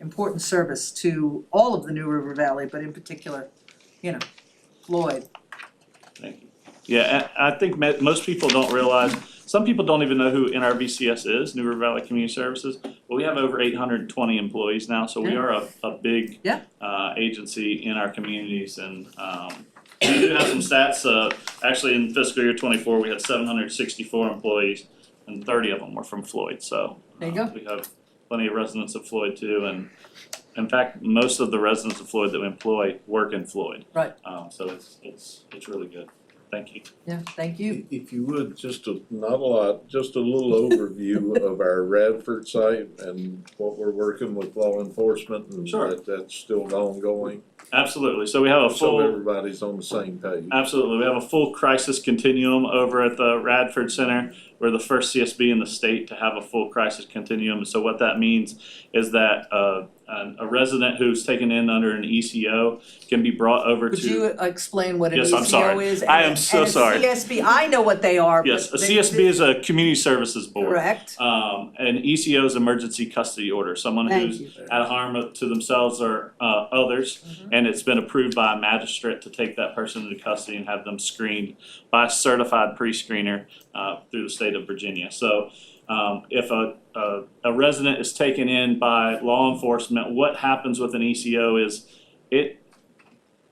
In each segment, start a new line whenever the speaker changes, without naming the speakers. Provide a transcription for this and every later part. important service to all of the New River Valley, but in particular, you know, Floyd.
Thank you. Yeah, I, I think me- most people don't realize, some people don't even know who NRVCS is, New River Valley Community Services. But we have over eight hundred and twenty employees now, so we
Yeah.
are a, a big
Yeah.
uh, agency in our communities and, um, we do have some stats, uh, actually in fiscal year twenty-four, we had seven hundred and sixty-four employees and thirty of them were from Floyd, so.
There you
uh,
go.
We have plenty of residents of Floyd too, and in fact, most of the residents of Floyd that we employ work in Floyd.
Right.
Um, so it's, it's, it's really good. Thank you.
Yeah, thank you.
If you would, just a, not a lot, just a little overview of our Radford site and what we're working with law enforcement and
Sure.
that that's still ongoing.
Absolutely, so we have a
So
full,
everybody's on the same page.
absolutely, we have a full crisis continuum over at the Radford Center. We're the first CSB in the state to have a full crisis continuum, so what that means is that, uh, an- a resident who's taken in under an ECO can be brought over to.
Would you uh, explain what an
Yes, I'm
ECO
sorry.
is?
I
and-
am so
and a
sorry.
CSB, I know what they are, but.
Yes, a
they-
CSB is a Community Services Board.
Correct,
Um, an ECO is Emergency Custody Order, someone who's
thank you.
at harm to themselves or uh others. And it's been approved by a magistrate to take that person into custody and have them screened by a certified pre-screener uh through the state of Virginia. So um if a a a resident is taken in by law enforcement, what happens with an ECO is it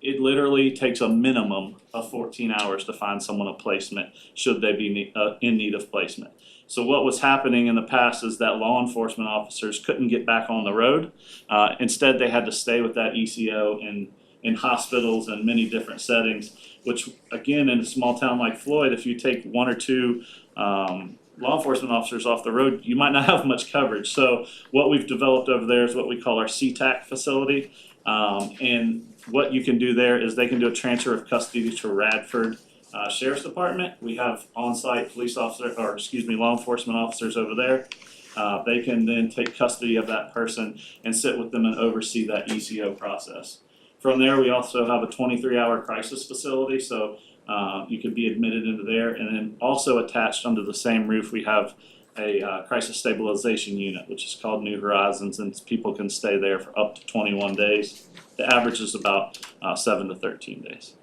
it literally takes a minimum of fourteen hours to find someone a placement, should they be ne- uh in need of placement. So what was happening in the past is that law enforcement officers couldn't get back on the road. Uh, instead, they had to stay with that ECO in, in hospitals and many different settings, which again, in a small town like Floyd, if you take one or two, um, law enforcement officers off the road, you might not have much coverage. So what we've developed over there is what we call our CTAC facility. Um, and what you can do there is they can do a transfer of custody to Radford uh, Sheriff's Department. We have on-site police officer, or excuse me, law enforcement officers over there. Uh, they can then take custody of that person and sit with them and oversee that ECO process. From there, we also have a twenty-three hour crisis facility, so, uh, you could be admitted into there. And then also attached under the same roof, we have a, uh, crisis stabilization unit, which is called New Horizons, and people can stay there for up to twenty-one days. The average is about, uh, seven to thirteen days.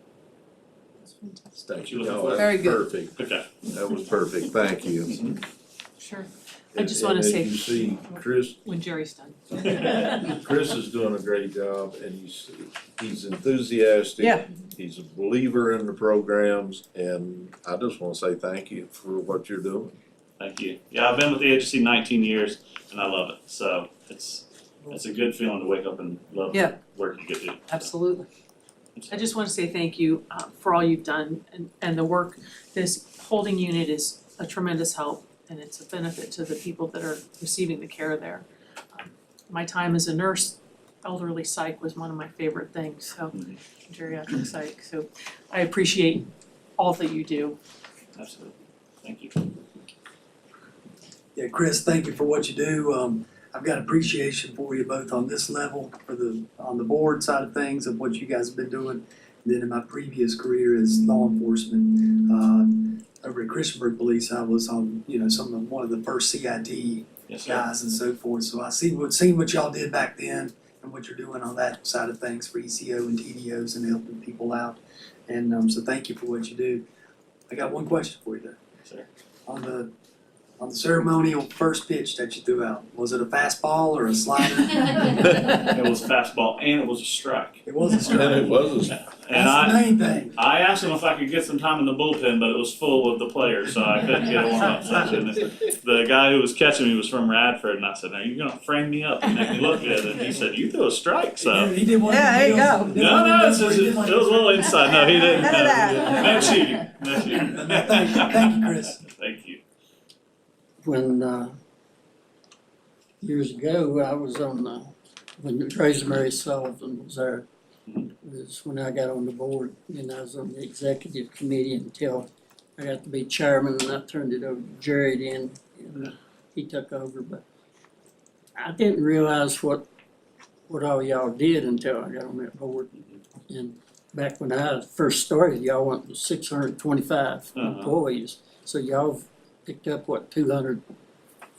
Thank
you
you.
looking
No,
for?
that's
Very good.
Perfect,
Okay.
that was perfect, thank you.
Sure, I
And-
just wanna
and as
say-
you see, Chris,
when Jerry's done.
Chris is doing a great job and he's, he's enthusiastic.
Yeah.
He's a believer in the programs and I just wanna say thank you for what you're doing.
Thank you. Yeah, I've been with the agency nineteen years and I love it. So it's it's a good feeling to wake up and love
Yeah.
the work you get to do.
Absolutely,
I just wanna say thank you uh for all you've done and and the work. This holding unit is a tremendous help and it's a benefit to the people that are receiving the care there. Um, My time as a nurse, elderly psych was one of my favorite things, so
Mhm.
geriatric psych, so I appreciate all that you do.
Absolutely. Thank you.
Yeah, Chris, thank you for what you do. Um, I've got appreciation for you both on this level, for the, on the board side of things of what you guys have been doing. And then in my previous career as law enforcement, uh, over at Christiansburg Police, I was on, you know, some of, one of the first CID
Yes, sir.
guys and so forth. So I see what, seen what y'all did back then and what you're doing on that side of things for ECO and TDOs and helping people out. And, um, so thank you for what you do. I got one question for you though
Sir.
on the on the ceremonial first pitch that you threw out, was it a fastball or a slider?
It was a fastball and it was a strike.
It was a
And
strike.
it was a
And
That's the
I
main thing.
I asked him if I could get some time in the bullpen, but it was full of the players, so I couldn't get a warm up session. And The guy who was catching me was from Radford, and I said, "Now you're gonna frame me up and make me look good." And he said, "You threw a strike, so."
He did one.
Yeah, there you go.
he did
No,
one of
no, it's
those where
just,
he
it
did
was
like-
a little inside, no, he didn't.
None of that.
No cheating, no cheating.
No, no, thank you. Thank you, Chris.
Thank you.
when uh years ago, I was on the, when Rosemary Sullivan was there.
Mhm.
That's when I got on the board and I was on the executive committee until I got to be chairman and I turned it over to Jared and and uh, he took over, but I didn't realize what what all y'all did until I got on that board. And back when I first started, y'all went to six hundred and twenty-five
Uh-huh.
employees. So y'all picked up, what, two hundred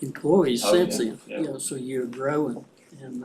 employees
Oh,
since
yeah,
then?
yeah.
You know, so you're growing and